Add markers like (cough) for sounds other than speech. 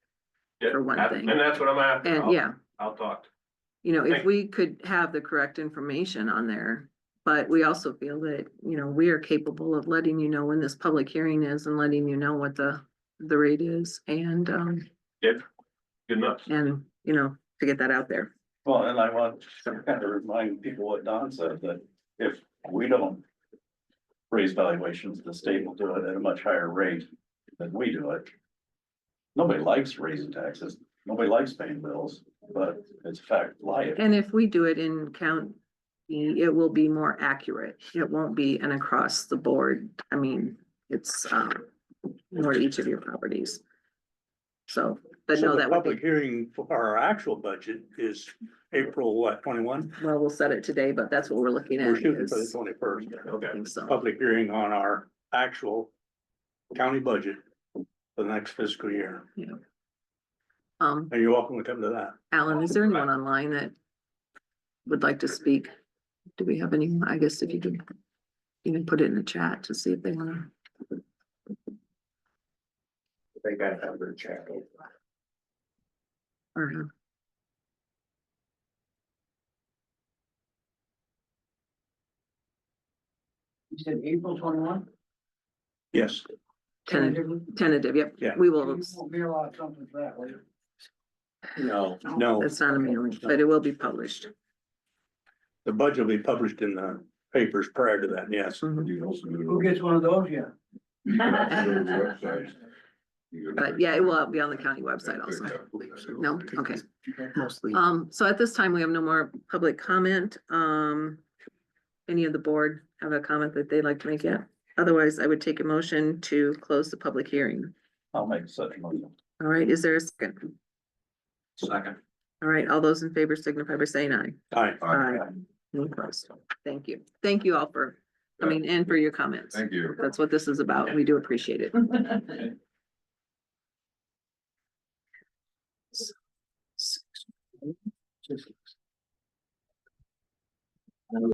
Yeah, for one that- thing. And that's what I'm after. And I'll, yeah, I'll talk. you know, if Thank- we could have the correct information on there. But we also feel that, you know, we are capable of letting you know when this public hearing is and letting you know what the, the rate is and, um, Good enough. and, you know, to get that out there. Well, and I want to kind of remind people what Don said, that if we don't raise valuations, the state will do it at a much higher rate than we do it. Nobody likes raising taxes, nobody likes paying bills, but it's a fact of life. And if we do it in county, it will be more accurate. It won't be an across the board. I mean, it's, um, more to each of your properties. So, but So no, the that would be. public hearing for our actual budget is April, what, twenty-one? Well, we'll set it today, but that's what we're looking at. We're shooting for the is- twenty-first, Okay. I think so. public hearing on our actual county budget for the next fiscal year. Um, And you're welcome to come to that. Alan, is there anyone online that would like to speak? Do we have any, I guess if you could even put it in the chat to see if they wanna, They gotta have their check. or uh, You said April twenty-one? Yes, tentative, tentative, yep. Yeah. We will, You won't hear a lot of something for that, will you? no, no, it's not a mailing, but it will be published. the budget will be published in the papers prior to that, yes. Mhm. Who gets one of those (laughs) yet? But yeah, it will be on the county website also. No, okay. Um, so at this time, we have no more public comment. Um, any of the board have a comment that they'd like to make yet? Otherwise, I would take a motion to close the public hearing. I'll make such (laughs) a motion. All right, is there a second? Second. All right, all those in favor signify by saying aye. All right, Any opposed? Thank you. Thank you all for coming and for your comments. Thank you. That's what this is about. We do appreciate it.